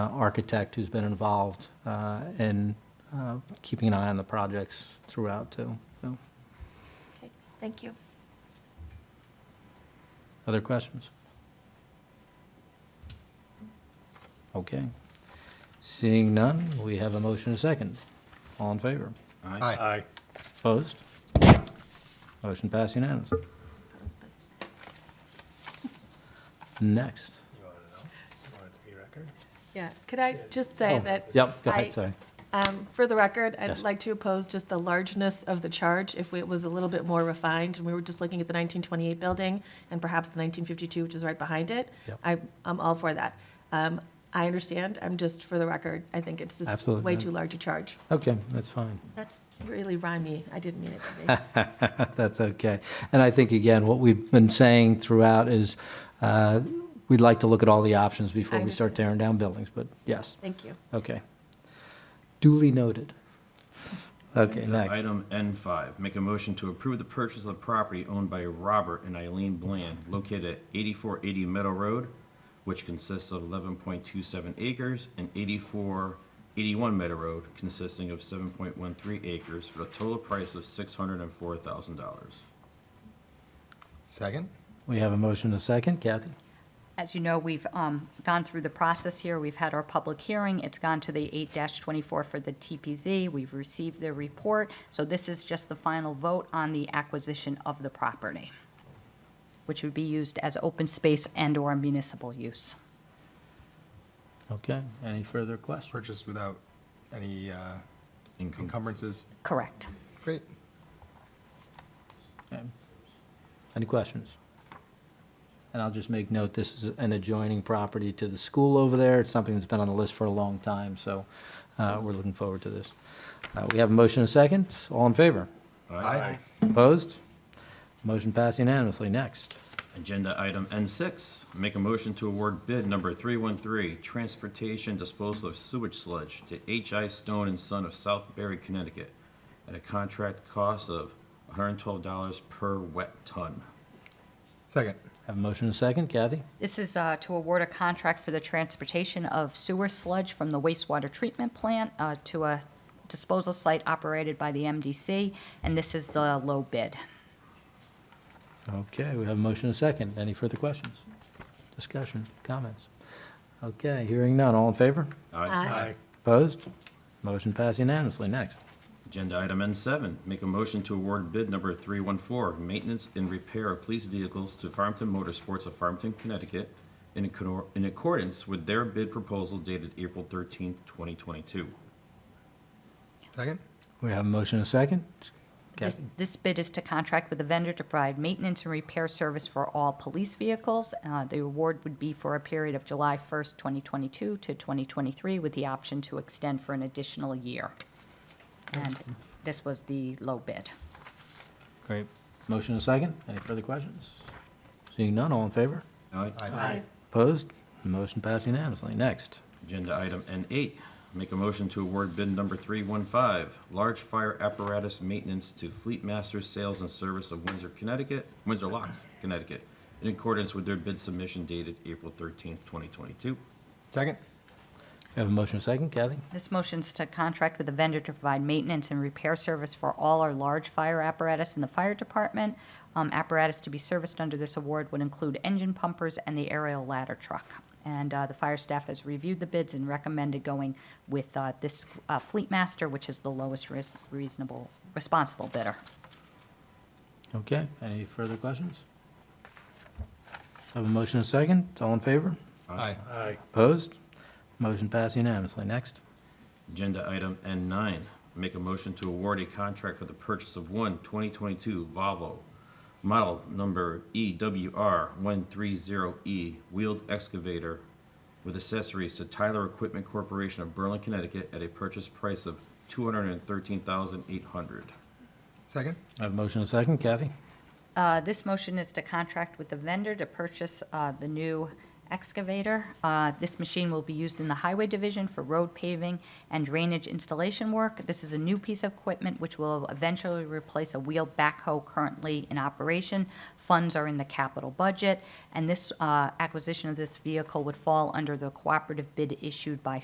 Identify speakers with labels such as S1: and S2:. S1: uh, architect who's been involved uh, in uh, keeping an eye on the projects throughout, too. So,
S2: Okay, Thank you.
S1: Other questions? Okay. Seeing none, we have a motion and a second. All in favor?
S3: Aye.
S1: Opposed? Motion passed unanimously. Next.
S2: Yeah, could I just say that?
S1: Oh, Yep, go
S2: I-
S1: ahead, sorry.
S2: um, For the record, I'd
S1: Yes.
S2: like to oppose just the largeness of the charge. If it was a little bit more refined, and we were just looking at the 1928 building and perhaps the 1952, which is right behind it,
S1: Yep.
S2: I'm, I'm all for that. Um, I understand, I'm just, for the record, I think it's just
S1: Absolutely,
S2: way
S1: yeah.
S2: too large a charge.
S1: Okay, that's fine.
S2: That's really rhymy, I didn't mean it to be.
S1: That's okay. And I think, again, what we've been saying throughout is uh, we'd like to look at all the options before
S2: I
S1: we start tearing down buildings, but yes,
S2: Thank you.
S1: okay. Duly noted. Okay,
S4: Agenda
S1: next.
S4: Item N5, make a motion to approve the purchase of property owned by Robert and Eileen Bland located at 8480 Meadow Road, which consists of 11.27 acres, and 8481 Meadow Road consisting of 7.13 acres for a total price of $604,000.
S3: Second?
S1: We have a motion and a second. Kathy?
S5: As you know, we've um, gone through the process here. We've had our public hearing. It's gone to the 8-24 for the TPZ. We've received their report. So this is just the final vote on the acquisition of the property, which would be used as open space and/or municipal use.
S1: Okay, any further questions?
S3: Purchase without any uh, encumbrances.
S5: Correct.
S3: Great.
S1: Any questions? And I'll just make note, this is an adjoining property to the school over there. It's something that's been on the list for a long time, so uh, we're looking forward to this. Uh, We have a motion and a second. All in favor?
S3: Aye.
S1: Opposed? Motion passed unanimously. Next.
S4: Agenda item N6, make a motion to award bid number 313, transportation disposal of sewage sludge to H.I. Stone and Son of Southbury, Connecticut, at a contract cost of $112 per wet ton.
S3: Second.
S1: Have a motion and a second. Kathy?
S5: This is uh, to award a contract for the transportation of sewer sludge from the wastewater treatment plant uh, to a disposal site operated by the MDC, and this is the low bid.
S1: Okay, we have a motion and a second. Any further questions? Discussion, comments? Okay, hearing none. All in favor?
S2: Aye.
S1: Opposed? Motion passed unanimously. Next.
S4: Agenda item N7, make a motion to award bid number 314, maintenance and repair of police vehicles to Farmington Motorsports of Farmington, Connecticut, in accord- in accordance with their bid proposal dated April 13th, 2022.
S3: Second?
S1: We have a motion and a second.
S5: This,
S1: Kathy?
S5: this bid is to contract with a vendor to provide maintenance and repair service for all police vehicles. Uh, The award would be for a period of July 1st, 2022 to 2023, with the option to extend for an additional year. And this was the low bid.
S1: Great. Motion and a second. Any further questions? Seeing none. All in favor?
S4: Aye.
S2: Aye.
S1: Opposed? Motion passed unanimously. Next.
S4: Agenda item N8, make a motion to award bid number 315, large fire apparatus maintenance to Fleet Masters Sales and Service of Windsor, Connecticut, Windsor Locks, Connecticut, in accordance with their bid submission dated April 13th, 2022.
S3: Second?
S1: We have a motion and a second. Kathy?
S5: This motion's to contract with a vendor to provide maintenance and repair service for all our large fire apparatus in the fire department. Um, Apparatus to be serviced under this award would include engine pumpers and the aerial ladder truck. And uh, the fire staff has reviewed the bids and recommended going with uh, this uh, Fleet Master, which is the lowest ris- reasonable, responsible bidder.
S1: Okay, any further questions? Have a motion and a second, all in favor?
S3: Aye.
S1: Opposed? Motion passed unanimously. Next.
S4: Agenda item N9, make a motion to award a contract for the purchase of one 2022 Volvo, model number E EWR130E E wheeled excavator with accessories to Tyler Equipment Corporation of Berlin, Connecticut at a purchase price of $213,800.
S3: Second?
S1: I have a motion and a second, Kathy?
S5: Uh, This motion is to contract with the vendor to purchase uh, the new excavator. Uh, This machine will be used in the Highway Division for road paving and drainage installation work. This is a new piece of equipment which will eventually replace a wheel backhoe currently in operation. Funds are in the capital budget, and this uh, acquisition of this vehicle would fall under the cooperative bid issued by